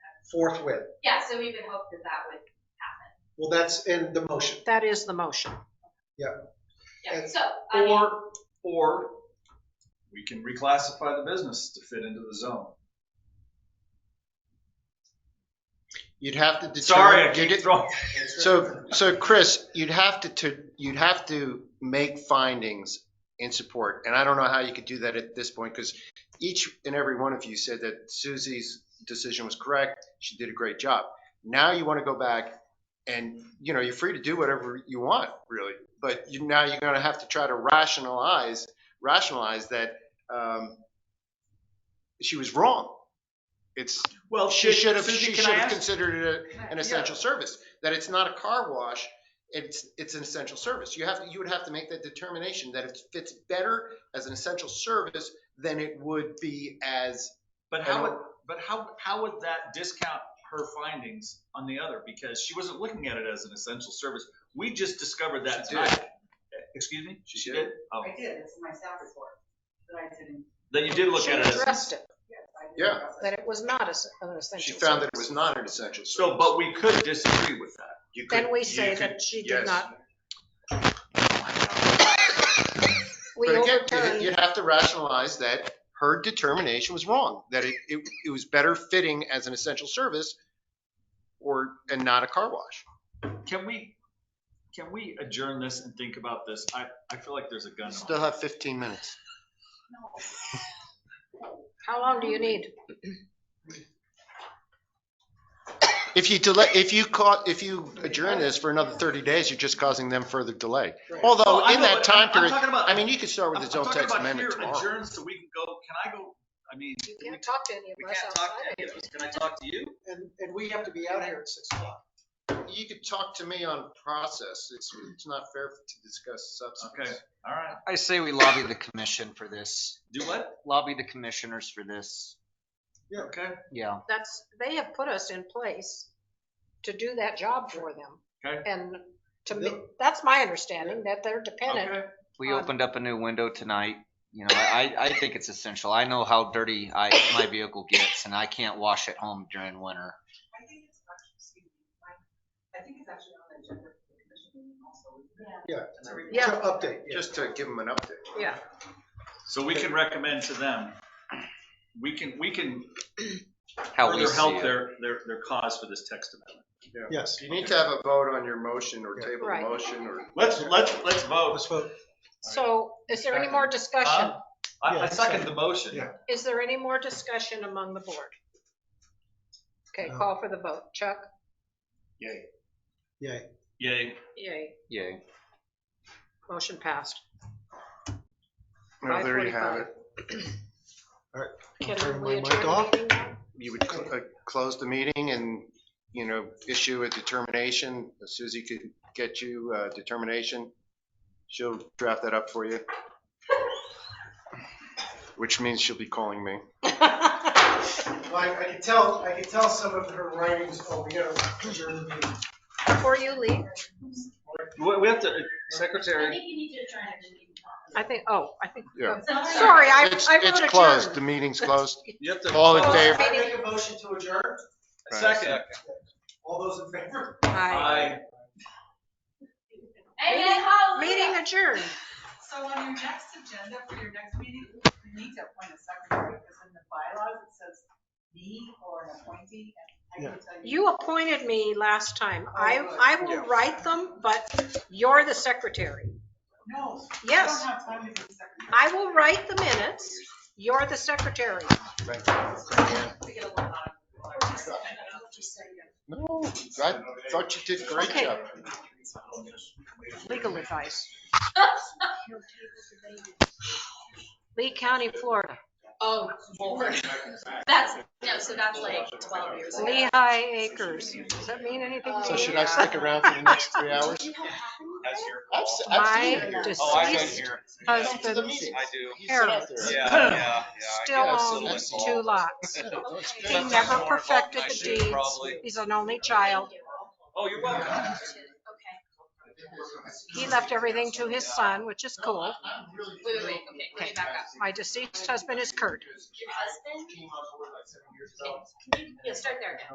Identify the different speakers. Speaker 1: forthwith.
Speaker 2: Yeah, so we would hope that that would happen.
Speaker 1: Well, that's in the motion.
Speaker 3: That is the motion.
Speaker 2: Yeah,
Speaker 1: And-
Speaker 2: so, I mean,
Speaker 4: Or, or we can reclassify the business to fit into the zone.
Speaker 5: You'd have to determine.
Speaker 4: Sorry, I
Speaker 5: you'd-
Speaker 4: keep throwing.
Speaker 5: So, so Chris, you'd have to, to, you'd have to make findings in support. And I don't know how you could do that at this point because each and every one of you said that Susie's decision was correct. She did a great job. Now you want to go back and, you know, you're free to do whatever you want, really. But you, now you're going to have to try to rationalize, rationalize that, um, she was wrong. It's,
Speaker 4: Well,
Speaker 5: she should have,
Speaker 4: Susie,
Speaker 5: she
Speaker 4: can
Speaker 5: should
Speaker 4: I
Speaker 5: have
Speaker 4: ask?
Speaker 5: considered it a
Speaker 2: Can I-
Speaker 5: an essential service, that it's not a car wash, it's, it's an essential service. You have, you would have to make that determination that it fits better as an essential service than it would be as,
Speaker 4: But how would, but how, how would that discount her findings on the other? Because she wasn't looking at it as an essential service. We just discovered that
Speaker 5: She did.
Speaker 4: tonight. Excuse me? She did? Oh,
Speaker 6: I did, it's in my staff report, that I didn't,
Speaker 4: that you did look
Speaker 3: She
Speaker 4: at it as.
Speaker 3: addressed it,
Speaker 6: yes, I did.
Speaker 5: Yeah.
Speaker 6: address it.
Speaker 3: that it was not as- an
Speaker 5: she
Speaker 3: essential.
Speaker 5: found that it
Speaker 3: service.
Speaker 5: was not an essential
Speaker 4: So,
Speaker 5: service.
Speaker 4: but we could disagree with that.
Speaker 5: You could-
Speaker 3: Then we
Speaker 5: you
Speaker 3: say
Speaker 5: could-
Speaker 3: that she
Speaker 5: yes.
Speaker 3: did not, we
Speaker 5: But again, you'd-
Speaker 3: overturned,
Speaker 5: you'd have to rationalize that her determination was wrong, that it, it, it was better fitting as an essential service or, and not a car wash.
Speaker 4: Can we, can we adjourn this and think about this? I, I feel like there's a gun.
Speaker 5: Still have 15 minutes.
Speaker 3: how long do you need?
Speaker 5: If you delay, if you caught, if you adjourn this for another 30 days, you're just causing them further delay.
Speaker 4: Oh,
Speaker 5: Although, oh, in that time period, I mean, you could start with the zone text amendment tomorrow.
Speaker 4: Adjourn so we can go, can I go, I mean,
Speaker 3: You
Speaker 4: we
Speaker 3: can't talk to any
Speaker 4: we
Speaker 3: of us
Speaker 4: can't
Speaker 3: outside
Speaker 4: talk
Speaker 3: of
Speaker 4: to any of us. Can I talk to you?
Speaker 1: And, and we have to be out here at six o'clock.
Speaker 5: You could talk to me on process. It's, it's not fair to discuss substance.
Speaker 4: Okay. All right.
Speaker 7: I say we lobby the commission for this.
Speaker 4: Do what?
Speaker 7: Lobby the commissioners for this.
Speaker 4: Okay.
Speaker 7: Yeah.
Speaker 3: That's, they have put us in place to do that job for them.
Speaker 4: Okay.
Speaker 3: And to me,
Speaker 1: Yep.
Speaker 3: that's my understanding, that they're dependent.
Speaker 4: Okay.
Speaker 7: We
Speaker 3: Um,
Speaker 7: opened up a new window tonight. You know, I, I think it's essential. I know how dirty I, my vehicle gets and I can't wash it home during winter.
Speaker 6: I think it's actually, excuse me, I, I think it's actually on the agenda for the commission meeting also, isn't it?
Speaker 1: Yeah.
Speaker 6: To review.
Speaker 1: To
Speaker 3: Yeah.
Speaker 1: update, yeah.
Speaker 5: Just to give them an update.
Speaker 3: Yeah.
Speaker 4: So we can recommend to them, we can, we can
Speaker 7: How we
Speaker 4: further
Speaker 7: see
Speaker 4: help
Speaker 7: it.
Speaker 4: their, their, their cause for this text amendment.
Speaker 1: Yes.
Speaker 5: You need to have a vote on your motion or
Speaker 1: Yeah.
Speaker 5: table a
Speaker 3: Right.
Speaker 5: motion or.
Speaker 4: Let's, let's, let's vote.
Speaker 1: Let's vote.
Speaker 3: So is there any
Speaker 5: Uh,
Speaker 3: more discussion?
Speaker 4: Huh? I,
Speaker 1: Yeah,
Speaker 4: I second the
Speaker 1: second.
Speaker 4: motion.
Speaker 1: Yeah.
Speaker 3: Is there any more discussion among the board? Okay,
Speaker 1: No.
Speaker 3: call for the vote. Chuck?
Speaker 1: Yay.
Speaker 4: Yay.
Speaker 3: Yay.
Speaker 7: Yay.
Speaker 3: Motion passed.
Speaker 5: No, Oh, there you have it.
Speaker 3: Can
Speaker 1: Turn
Speaker 3: we
Speaker 1: my mic
Speaker 3: adjourn the
Speaker 1: off.
Speaker 3: meeting now?
Speaker 5: You would cl- uh, close the meeting and, you know, issue a determination. Susie could get you a determination. She'll draft that up for you. Which means she'll be calling me.
Speaker 1: Well, I, I can tell, I can tell some of her writings, oh, we gotta adjourn the meeting.
Speaker 3: Before you leave,
Speaker 4: We, we have to, uh,
Speaker 2: I
Speaker 4: secretary.
Speaker 2: think you need to adjourn it. and we can talk.
Speaker 3: I think, oh, I think,
Speaker 5: Yeah.
Speaker 3: sorry, I,
Speaker 5: It's,
Speaker 3: I
Speaker 5: it's
Speaker 3: wrote
Speaker 5: closed. The
Speaker 3: adjourned.
Speaker 5: meeting's closed.
Speaker 4: You have to.
Speaker 5: All in favor?
Speaker 1: I make a motion to adjourn.
Speaker 4: Second.
Speaker 1: All those in favor?
Speaker 3: Aye.
Speaker 4: Aye.
Speaker 2: Amen, hallelujah.
Speaker 3: Meeting adjourned.
Speaker 6: So on your next agenda for your next meeting, you need to appoint a secretary, because in the bylaws, it says me or an appointee, and I can tell you.
Speaker 3: You appointed me last time. I,
Speaker 6: Oh, good.
Speaker 3: I will write them, but you're the secretary.
Speaker 6: No. I
Speaker 3: Yes.
Speaker 6: don't have time to be the secretary.
Speaker 3: I will write the minutes. You're the secretary.
Speaker 6: To get a lot of- Just say yes.
Speaker 5: No, I thought you did a great
Speaker 3: Okay.
Speaker 5: job.
Speaker 3: Legal advice. Lee County, Florida.
Speaker 2: Oh, Lord. That's, no, so that's like twelve years ago.
Speaker 3: Lehigh Acres. Does that mean anything to you?
Speaker 5: So should I stick around for the next three hours?
Speaker 4: That's your
Speaker 5: I've se- I've seen
Speaker 3: My
Speaker 5: it here.
Speaker 4: Oh, I've
Speaker 3: deceased
Speaker 4: been here.
Speaker 5: Back to the
Speaker 3: husband's
Speaker 5: meeting.
Speaker 4: I do.
Speaker 5: You sit out there.
Speaker 4: Yeah, yeah, yeah. I
Speaker 3: still
Speaker 4: get a
Speaker 5: own
Speaker 4: little
Speaker 3: owns
Speaker 5: that's
Speaker 3: two
Speaker 4: involved.
Speaker 3: lots.
Speaker 5: That's
Speaker 3: He
Speaker 5: good.
Speaker 3: never
Speaker 4: More involved
Speaker 3: perfected
Speaker 4: than I
Speaker 3: the
Speaker 4: should, probably.
Speaker 3: deeds. He's an only child.
Speaker 4: Oh, you're welcome.
Speaker 2: Okay.
Speaker 3: He left everything to his son, which is cool.
Speaker 2: Wait, wait, wait, okay, let me back up.
Speaker 3: My deceased husband is Kurt.
Speaker 2: Your husband? Yeah, start there now.